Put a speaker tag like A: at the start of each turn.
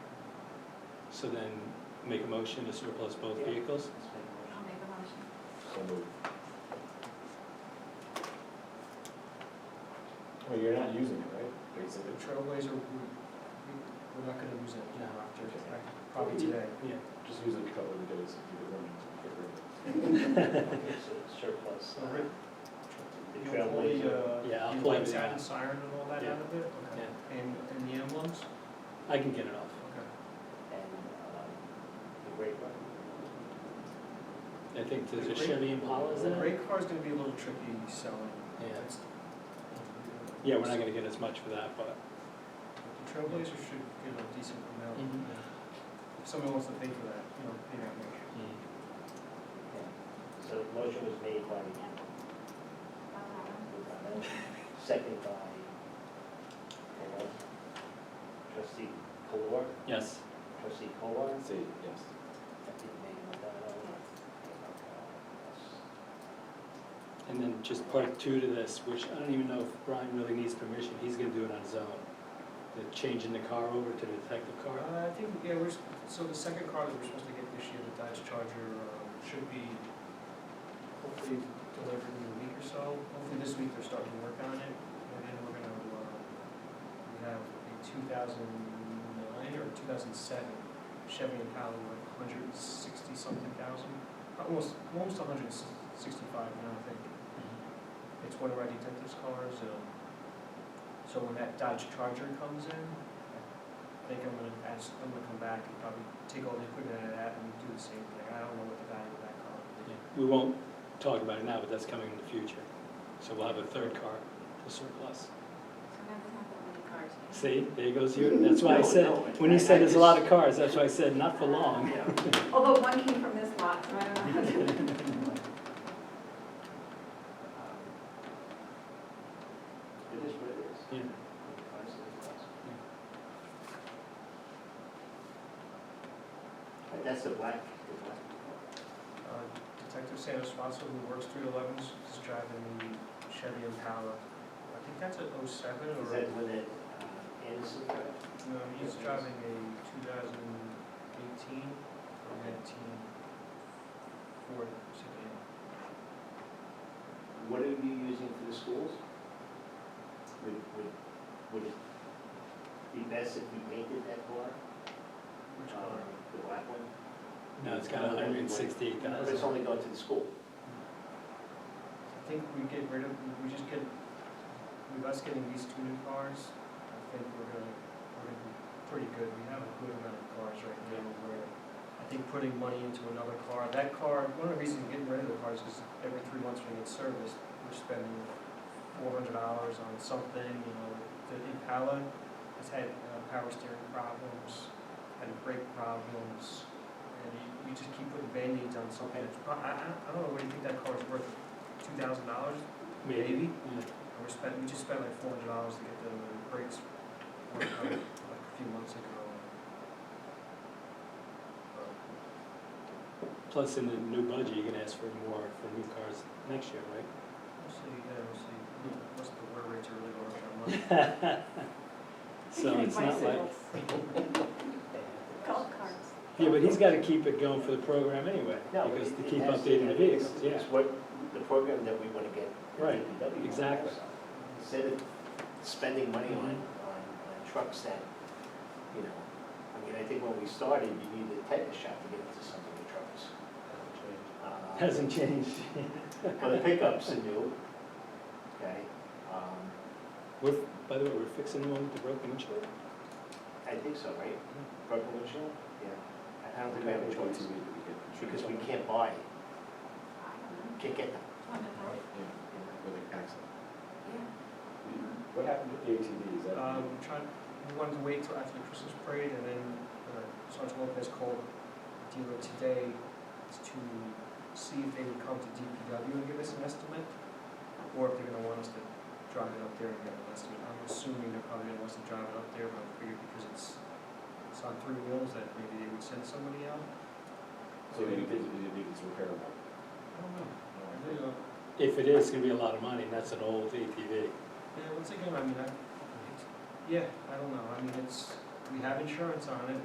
A: So then make a motion to surplus both
B: Yeah.
A: vehicles?
C: I'll make a motion.
B: So moved.
D: Well, you're not using it, right?
B: The
D: Basically.
B: Trailblazer, we- we- we're not gonna use it
A: No.
B: now, after, probably today.
A: Yeah.
D: Just use it a couple of days if you're running to get rid of it.
E: It's a surplus.
B: So Rick,
E: uh, The
B: you'll pull the, uh,
A: Yeah, I'll
B: the
A: pull
B: lights
A: everything
B: out and
A: out.
B: siren and all that
A: Yeah.
B: out of it? Okay. And, and the emblems?
A: I can get it off.
B: Okay.
E: And, um, the great one.
A: I think there's a Chevy Impala, is
B: The
A: there?
B: rate card's gonna be a little tricky selling.
A: Yeah.
B: That's-
A: Yeah, we're not gonna get as much for that, but.
B: The Trailblazer should get a decent amount, if someone wants to pay for that, you know, pay that much.
A: Mm.
E: Yeah. So the motion was made by,
C: I'll
E: second by, you know, trustee Kolar,
A: Yes,
E: trustee Kolar,
D: Say yes.
E: deputy mayor
C: have
E: Madonna.
C: one.
A: and then just part two to this, which I don't even know if Brian really needs permission, he's gonna do it on his own. The changing the car over to the detective car.
B: Uh, I think, yeah, we're, s- so the second car that we're supposed to get this year, the Dodge Charger, uh, should be hopefully delivered in a week or so. Hopefully this week they're starting to work on it, and then we're gonna, uh, we have a two thousand nine or two thousand seven Chevy Impala, like hundred and sixty something thousand, almost, almost hundred and sixty-five now, I think. It's one of our detective's cars, um, so when that Dodge Charger comes in, I think I'm gonna ask, I'm gonna come back and probably take all the equipment out of that and do the same thing, I don't know what the value of that car is.
A: Yeah. We won't talk about it now, but that's coming in the future. So we'll have a third car to surplus.
C: So now we have that many cars.
A: See, there goes your, that's why I
E: No,
A: said,
E: no,
A: when you
E: I- I
A: said there's a
E: just-
A: lot of cars, that's why I said not for long.
C: Although one came from this lot, so I don't know.
E: It is what it is.
A: Yeah.
E: The price is the price. But That's the black, the black.
B: Uh, Detective Sanders Swanson, who works three elevens, is driving the Chevy Impala, I think that's a oh seven
E: Is
B: or,
E: that when it, uh, Anderson got it?
B: no, he's driving a two thousand eighteen or nineteen Ford sedan.
E: What are you using for the schools? Would, would, would it be best if we painted that car?
B: Which
E: Um,
B: car?
E: The black one?
A: No, it's got hundred and sixty-eight
E: But
A: thousand.
E: it's only going to the school.
B: I think we get rid of, we just get, with us getting these two new cars, I think we're gonna, we're gonna be pretty good. We have a good amount of cars right now where I think putting money into another car, that car, one of the reasons getting rid of the cars is every three months when we get serviced, we're spending four hundred dollars on something, you know, the Impala has had uh, power steering problems, had brake problems, and you, you just keep putting Band-Aids on something. that's pro- I, I, I don't know, what do you think that car's worth? two thousand dollars,
A: Maybe.
B: maybe, and we spent, we just spent like four hundred dollars to get the brakes worked out, like a few months ago. But
A: Plus in the new budget, you're gonna ask for more for new cars next year, right?
B: We'll see, yeah, we'll see, what's the wear rates are really going up that much.
A: So it's not like,
C: Bicycles, Golf
E: Golf
C: carts.
A: yeah, but he's gotta keep it going for the program anyway,
E: No,
A: because to
E: it- it
A: keep
E: has to-
A: updating the
E: it- it's-
A: vehicles, yeah.
E: It's what, the program that we want to get. the
A: Right,
E: DPW on.
A: exactly.
E: Instead of spending money on, on
A: Mhm.
E: on trucks that, you know, I mean, I think when we started, you needed a tetanus shot to get into some of the trucks. Uh,
A: Hasn't changed.
E: Well, the pickups are new, okay? Um,
A: We're, by the way, we're fixing the one with the broken windshield?
E: I think so, right?
A: Mm-hmm.
E: Purple windshield? Yeah. I- I don't think we have a choice, because we can't buy, it.
C: I don't know.
E: can't get them.
C: On the road,
D: Yeah, with an accident.
C: yeah.
E: Mm-hmm.
D: What happened with the ATV? Is that?
B: Um, trying, we wanted to wait till after the Christmas parade, and then uh, Sergeant Lopez called the dealer today to see if they would come to DPW and give us an estimate, or if they're gonna want us to drive it up there and get an estimate. I'm assuming they're probably gonna want us to drive it up there, but I figured because it's, it's on three wheels, that maybe they would send somebody out.
D: So you think, you think it's repairable?
B: I don't know. I really don't.
A: If it is, it's gonna be a lot of money, and that's an old ATV.
B: Yeah, once again, I mean, I, it's- yeah, I don't know. I mean, it's, we have insurance on it,